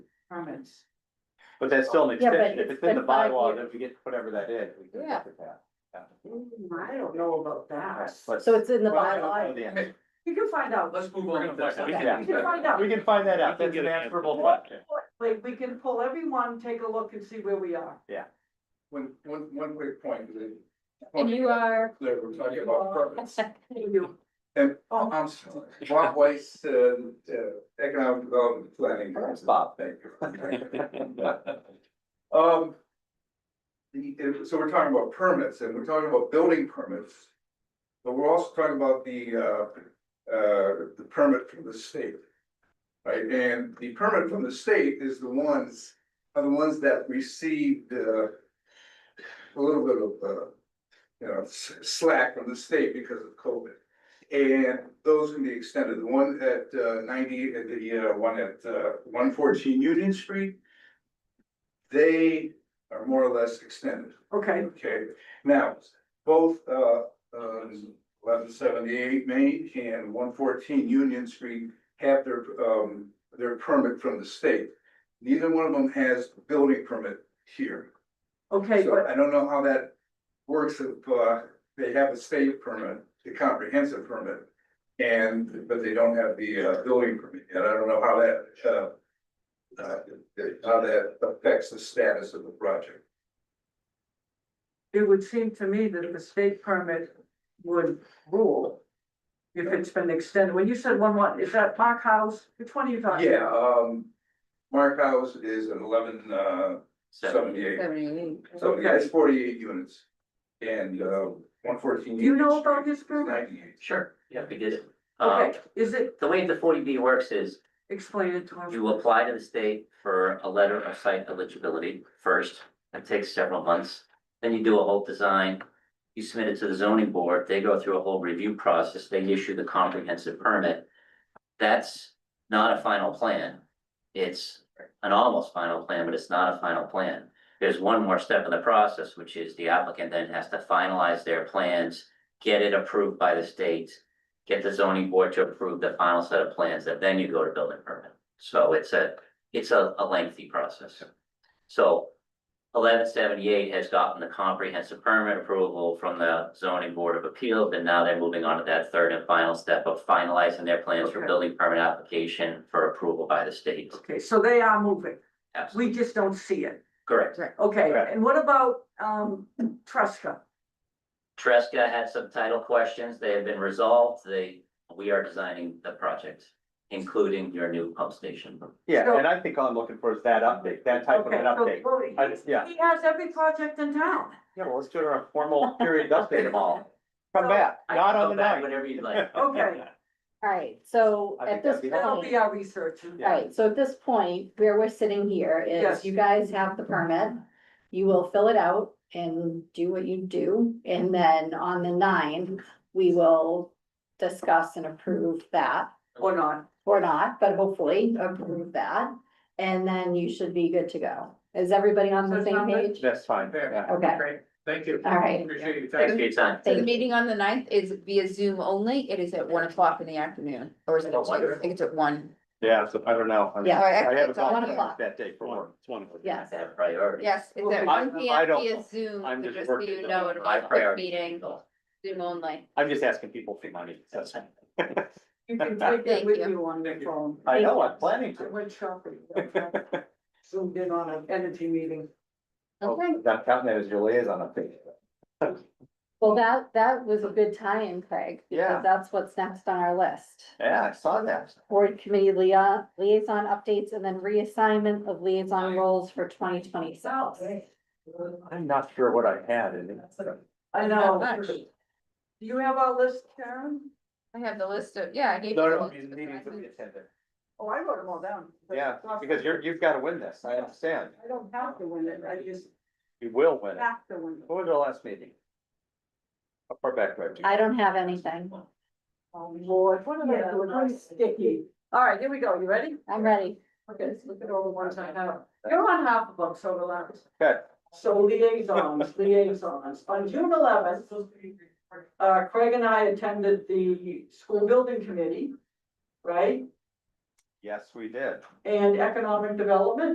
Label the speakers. Speaker 1: permits.
Speaker 2: But that's still an
Speaker 3: Yeah, but
Speaker 2: extension,
Speaker 3: it's
Speaker 2: if it's in the
Speaker 3: been five
Speaker 2: bylaw,
Speaker 3: years.
Speaker 2: then we get whatever that is, we can
Speaker 3: Yeah. Ah,
Speaker 2: look at that. Yeah.
Speaker 1: Hmm, I don't know about that.
Speaker 2: But-
Speaker 3: So it's in the
Speaker 2: Well, I don't
Speaker 3: bylaw.
Speaker 2: know the answer.
Speaker 1: You can find out.
Speaker 4: Let's move on to the next.
Speaker 2: We
Speaker 4: one.
Speaker 2: can-
Speaker 1: You can find out.
Speaker 2: We can find that out,
Speaker 4: We can
Speaker 2: that's
Speaker 4: get
Speaker 2: an
Speaker 4: an answer.
Speaker 2: answerable question.
Speaker 1: Like, we can pull everyone, take a look and see where we are.
Speaker 5: One, one, one quick point. that-
Speaker 3: And you uh, are.
Speaker 5: That we're talking about purpose.
Speaker 1: You-
Speaker 5: And, oh, I'm sorry, Bob Weiss, uh, uh, Economic Development Planning.
Speaker 2: Thanks, Bob.
Speaker 5: Thank you. Um. The, if- so we're talking about permits and we're talking about building permits. But we're also talking about the, uh, uh, the permit from the state. Right, and the permit from the state is the ones, are the ones that received, uh. A little bit of, uh, you know, s- slack from the state because of COVID. And those can be extended, the one at uh, ninety, uh, the uh, one at one fourteen Union Street. They are more or less extended,
Speaker 1: Okay,
Speaker 5: okay? Now, both uh, eleven seventy-eight Main and one fourteen Union Street have their, um, their permit from the state. Neither one of them has building permit here.
Speaker 1: okay,
Speaker 5: So
Speaker 1: but
Speaker 5: I don't know how that works if uh they have a state permit, the comprehensive permit. And but they don't have the uh building permit, and I don't know how that uh. Uh, how that affects the status of the project.
Speaker 1: it would seem to me that the state permit would rule. If it's been extended, when you said one, one, is that Park House, which one are you talking?
Speaker 5: Yeah, um, Mark House is an eleven uh seventy-eight, so yeah, it's forty-eight units. And uh one fourteen.
Speaker 1: Do you know about this, Bruce?
Speaker 5: Ninety-eight.
Speaker 6: Sure, you have to get it. Um,
Speaker 1: Okay, is it,
Speaker 6: the way the forty B works is
Speaker 1: explain it to us.
Speaker 6: you apply to the state for a letter of site eligibility first. That takes several months. Then you do a whole design. You submit it to the zoning board. They go through a whole review process. They issue the comprehensive permit. That's not a final plan. It's an almost final plan, but it's not a final plan. There's one more step in the process, which is the applicant then has to finalize their plans, get it approved by the state, get the zoning board to approve the final set of plans, and then you go to building permit. So it's a, it's a, a lengthy process. So eleven seventy-eight has gotten the comprehensive permit approval from the zoning board of appeals, and now they're moving on to that third and final step of finalizing their plans for
Speaker 1: Okay.
Speaker 6: building permit application for approval by the state.
Speaker 1: Okay, so they are moving,
Speaker 6: Absolutely,
Speaker 1: we just don't see it.
Speaker 6: correct.
Speaker 1: Okay,
Speaker 2: Correct.
Speaker 1: and what about, um, Tresca?
Speaker 6: Tresca had some title questions. They have been resolved. They, we are designing the project, including your new pump station.
Speaker 2: Yeah,
Speaker 1: So-
Speaker 2: and I think all I'm looking for is that update, that type of
Speaker 1: Okay,
Speaker 2: an
Speaker 1: so-
Speaker 2: update.
Speaker 1: well, he-
Speaker 2: I just- yeah.
Speaker 1: He has every project in town.
Speaker 2: Yeah, well, let's do our formal period update them all. Come
Speaker 1: So,
Speaker 2: back,
Speaker 6: I
Speaker 2: not
Speaker 6: can
Speaker 2: on
Speaker 6: go
Speaker 2: the
Speaker 6: back
Speaker 2: night.
Speaker 6: Whenever you'd like.
Speaker 1: Okay.
Speaker 3: Alright, so
Speaker 2: I think
Speaker 3: at this
Speaker 2: that'd be
Speaker 1: That'll
Speaker 3: point,
Speaker 1: be our research.
Speaker 3: alright, so at this point, where we're sitting here
Speaker 1: Yes.
Speaker 3: is you guys have the permit. You will fill it out and do what you do, and then on the nine, we will discuss and approve that.
Speaker 1: Or not.
Speaker 3: Or not, but hopefully approve that, and then you should be good to go. Is everybody on the
Speaker 1: So
Speaker 3: same
Speaker 1: sound good?
Speaker 3: page?
Speaker 2: That's fine,
Speaker 4: Fair.
Speaker 2: yeah.
Speaker 3: Okay,
Speaker 4: Thank you.
Speaker 3: alright.
Speaker 4: Appreciate your time.
Speaker 6: Thanks for your time.
Speaker 7: So the
Speaker 3: Thank-
Speaker 7: meeting on the ninth is via Zoom only. It is at one o'clock in the afternoon, or is it at
Speaker 6: Oh,
Speaker 7: two? I think it's at one.
Speaker 2: Yeah, so I don't know. I-
Speaker 3: Yeah.
Speaker 7: All right,
Speaker 2: I
Speaker 7: actually,
Speaker 2: haven't
Speaker 7: it's at
Speaker 2: gone
Speaker 3: one
Speaker 2: to
Speaker 3: o'clock.
Speaker 2: that day for work.
Speaker 4: It's one of them.
Speaker 3: Yes,
Speaker 6: That priority.
Speaker 7: Yes, it's at
Speaker 1: Okay.
Speaker 7: one P M
Speaker 2: I don't
Speaker 7: via
Speaker 2: know.
Speaker 7: Zoom,
Speaker 2: I'm
Speaker 7: so
Speaker 2: just
Speaker 7: just so
Speaker 2: working.
Speaker 7: you know, it'll be
Speaker 6: My
Speaker 7: a quick
Speaker 6: priority.
Speaker 7: meeting, Zoom only.
Speaker 2: I'm just asking people for money. That's-
Speaker 1: You can take it
Speaker 7: Thank
Speaker 1: with
Speaker 7: you.
Speaker 1: you on your phone.
Speaker 2: I know, I'm planning
Speaker 1: I
Speaker 2: to.
Speaker 1: went shopping. Zoomed in on an energy meeting.
Speaker 7: Okay,
Speaker 2: Not counting Oh, that as your liaison update.
Speaker 3: well, that, that was a good tie-in, Craig,
Speaker 2: Yeah.
Speaker 3: because that's what's next on our list.
Speaker 2: Yeah, I saw that.
Speaker 3: Board committee lia- liaison updates and then reassignment of liaison roles for twenty twenty-six.
Speaker 2: I'm not sure what I had in it.
Speaker 1: I
Speaker 7: not
Speaker 1: know.
Speaker 7: much.
Speaker 1: Do you have our list, Karen?
Speaker 7: I have the list of, yeah, I gave.
Speaker 2: No,
Speaker 7: you
Speaker 2: no,
Speaker 7: all
Speaker 2: these
Speaker 7: the
Speaker 2: meetings that we
Speaker 7: documents.
Speaker 2: attended.
Speaker 1: Oh, I wrote them all down.
Speaker 2: Yeah, because you're, you've got to win this. I understand.
Speaker 1: I don't have to win it, I just
Speaker 2: You will win it.
Speaker 1: have to win it.
Speaker 2: What was our last meeting? How far back do I have to go?
Speaker 3: I don't have anything.
Speaker 1: Oh, Lord, what am I doing? I'm sticky. All right, here we go. You ready?
Speaker 3: I'm ready.
Speaker 1: Okay, let's look at all the ones I have. You're on half of them, so relax.
Speaker 2: Okay.
Speaker 1: So liaisons, liaisons. On June eleventh, uh, Craig and I attended the school building committee, right?
Speaker 2: Yes, we did.
Speaker 1: And economic development.